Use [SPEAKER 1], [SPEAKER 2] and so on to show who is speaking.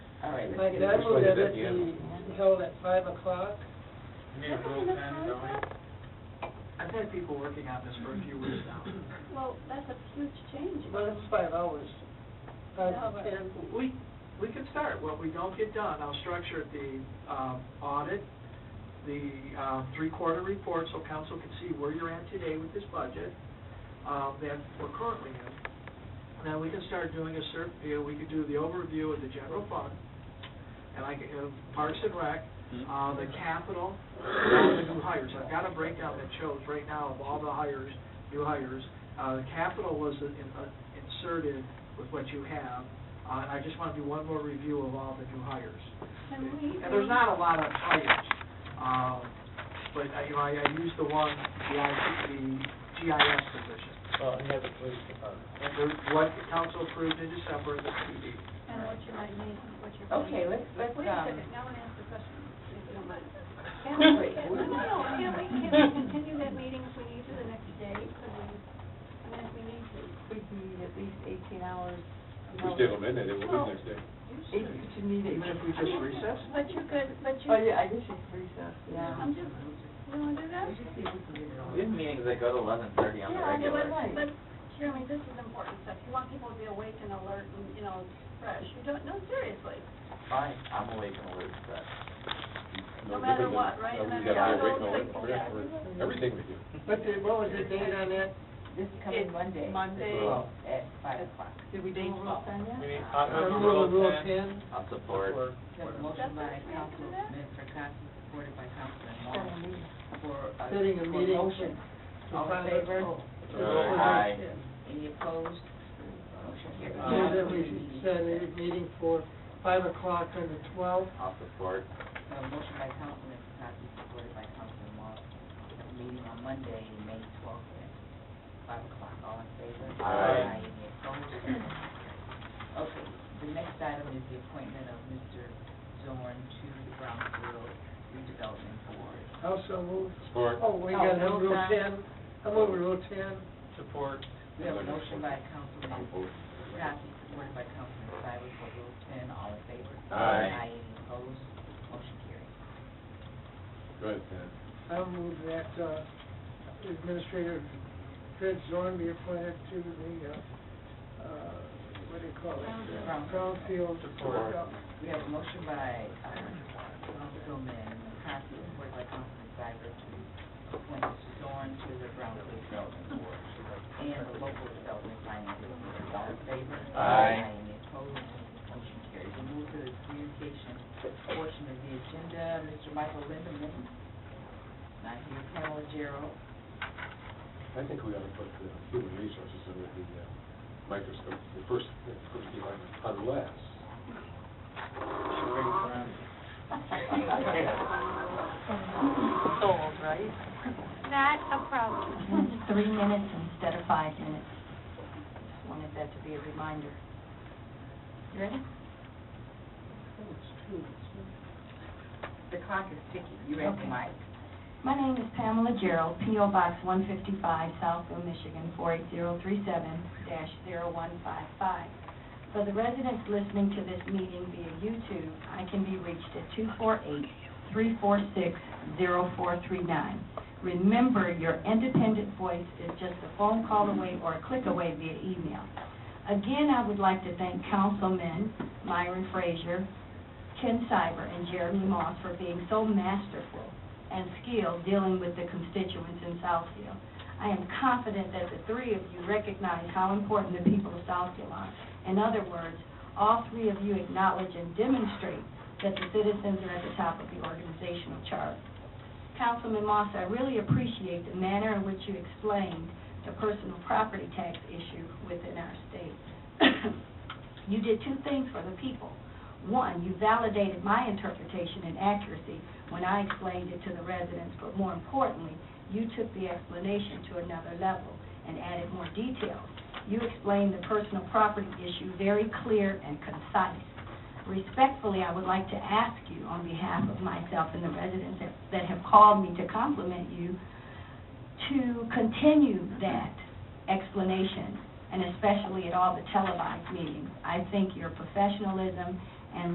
[SPEAKER 1] right.
[SPEAKER 2] Mike,
[SPEAKER 1] Did
[SPEAKER 2] I
[SPEAKER 1] we
[SPEAKER 2] will
[SPEAKER 1] look
[SPEAKER 2] get
[SPEAKER 1] at that
[SPEAKER 2] it
[SPEAKER 1] yet?
[SPEAKER 2] be held at five o'clock.
[SPEAKER 3] You need a real pen, don't you? I've had people working on this for a few weeks now.
[SPEAKER 4] Well, that's a huge change.
[SPEAKER 2] Well, it's five hours. Five
[SPEAKER 4] Yeah,
[SPEAKER 2] to
[SPEAKER 4] but-
[SPEAKER 2] ten.
[SPEAKER 3] We, we can start, what we don't get done, I'll structure the um, audit, the uh, three-quarter report, so council can see where you're at today with this budget, um, that we're currently in. Now, we can start doing a cert, you know, we could do the overview of the general fund, and like, uh, Parks and Rec, uh, the capital, and all the new hires. I've got a breakdown that shows right now of all the hires, new hires. Uh, the capital was in- in- inserted with what you have, uh, and I just want to do one more review of all the new hires.
[SPEAKER 4] Can we-
[SPEAKER 3] And there's not a lot of hires, um, but, I- you know, I, I used the one, the I- the GIS position.
[SPEAKER 1] Well, and that's the police department.
[SPEAKER 3] And the- what the council approved in December, the PD.
[SPEAKER 4] And what you might need, and what you're.
[SPEAKER 1] Okay, let's, let's,
[SPEAKER 4] Wait a
[SPEAKER 1] um,
[SPEAKER 4] second, now I'm gonna ask the question, if you don't mind. Can we, can- no, no, no, can we, can we continue that meeting if we need to the next day? Could we, I mean, if we need to.
[SPEAKER 5] We'd need at least eighteen hours.
[SPEAKER 6] If we stay on midnight, it will be next day.
[SPEAKER 5] Eight- You'd need
[SPEAKER 3] Even
[SPEAKER 5] eight.
[SPEAKER 3] if we just recess?
[SPEAKER 4] But you could, but you,
[SPEAKER 5] Oh, yeah, I guess it's recess, yeah.
[SPEAKER 4] I'm just, you wanna do that?
[SPEAKER 1] we have meetings that go to eleven thirty on the
[SPEAKER 4] Yeah, I mean,
[SPEAKER 1] regular.
[SPEAKER 4] but, but Jeremy, this is important stuff. You want people to be awake and alert and, you know, fresh. You don't, no, seriously.
[SPEAKER 1] Fine, I'm awake and alert, but.
[SPEAKER 4] No matter
[SPEAKER 6] different than-
[SPEAKER 4] what, right?
[SPEAKER 6] uh, we
[SPEAKER 4] No matter
[SPEAKER 6] gotta be awake and
[SPEAKER 4] what, those
[SPEAKER 6] alert
[SPEAKER 4] people
[SPEAKER 6] for
[SPEAKER 4] that-
[SPEAKER 6] every- Everything we do.
[SPEAKER 2] But the, what was the date on that?
[SPEAKER 5] This coming Monday.
[SPEAKER 2] Monday.
[SPEAKER 6] Well,
[SPEAKER 5] At five o'clock. Did we do rules on that?
[SPEAKER 3] We need
[SPEAKER 2] Uh, Rule, rule ten?
[SPEAKER 1] I'll support.
[SPEAKER 4] That's what we have to do that?
[SPEAKER 5] Seven meetings.
[SPEAKER 2] Setting a meeting.
[SPEAKER 5] All
[SPEAKER 2] to
[SPEAKER 5] in
[SPEAKER 2] five
[SPEAKER 5] favor?
[SPEAKER 2] o'clock.
[SPEAKER 1] Aye.
[SPEAKER 5] Any opposed? Motion carries.
[SPEAKER 2] Move Uh, that we set a meeting for five o'clock on the twelfth.
[SPEAKER 1] I'll support.
[SPEAKER 7] Uh, motion by Councilman Pataki, supported by Councilman Moss. We have a meeting on Monday, May twelfth, at five o'clock. All in favor?
[SPEAKER 1] Aye.
[SPEAKER 7] Any opposed? Okay, the next item is the appointment of Mr. Zorn to the Brownsville Redevelopment Board.
[SPEAKER 2] Also move,
[SPEAKER 6] Support.
[SPEAKER 2] oh, we got
[SPEAKER 7] Oh,
[SPEAKER 2] rule
[SPEAKER 7] okay.
[SPEAKER 2] ten. I'm over rule ten.
[SPEAKER 3] Support.
[SPEAKER 7] We have a motion by Councilman
[SPEAKER 6] I'm voting.
[SPEAKER 7] Pataki, supported by Councilman Cybers, for Rule ten. All in favor?
[SPEAKER 6] Aye.
[SPEAKER 7] Any opposed? Motion carries.
[SPEAKER 6] Go ahead, Ted.
[SPEAKER 2] I'll move that, uh, Administrator Fred Zorn be appointed to the, uh, uh, what do you call it? Brownfield.
[SPEAKER 6] Support.
[SPEAKER 7] We have a motion by uh, Councilman McCarthy, supported by Councilman Cybert, to appoint Mr. Zorn to the Brownfield Development Board and the Local Development Finance Authority. All in favor?
[SPEAKER 1] Aye.
[SPEAKER 7] Any opposed? Motion carries. We move to the communication portion of the agenda. Mr. Michael Lindeman, not here, Pamela Gerald.
[SPEAKER 6] I think we ought to put the human resources under the uh, microscope, the first, the first line, unless.
[SPEAKER 5] Sold, right?
[SPEAKER 4] Not a problem.
[SPEAKER 5] Three minutes instead of five minutes. Just Wanted that to be a reminder. Ready?
[SPEAKER 2] Oh,
[SPEAKER 7] The clock is ticking. You ready,
[SPEAKER 5] Okay.
[SPEAKER 7] Mike?
[SPEAKER 5] My name is Pamela Gerald, P.O. Box 155, Southfield, Michigan, 48037-0155. For the residents listening to this meeting via YouTube, I can be reached at 248-346-0439. Remember, your independent voice is just a phone call away or a click away via email. Again, I would like to thank Councilmen Myron Frazier, Ken Cyber, and Jeremy Moss for being so masterful and skill dealing with the constituents in Southfield. I am confident that the three of you recognize how important the people of Southfield are. In other words, all three of you acknowledge and demonstrate that the citizens are at the top of the organizational chart. Councilman Moss, I really appreciate the manner in which you explained the personal property tax issue within our state. You did two things for the people. One, you validated my interpretation and accuracy when I explained it to the residents, but more importantly, you took the explanation to another level and added more detail. You explained the personal property issue very clear and concise. Respectfully, I would like to ask you, on behalf of myself and the residents that- that have called me to compliment you, to continue that explanation, and especially at all the televised meetings. I think your professionalism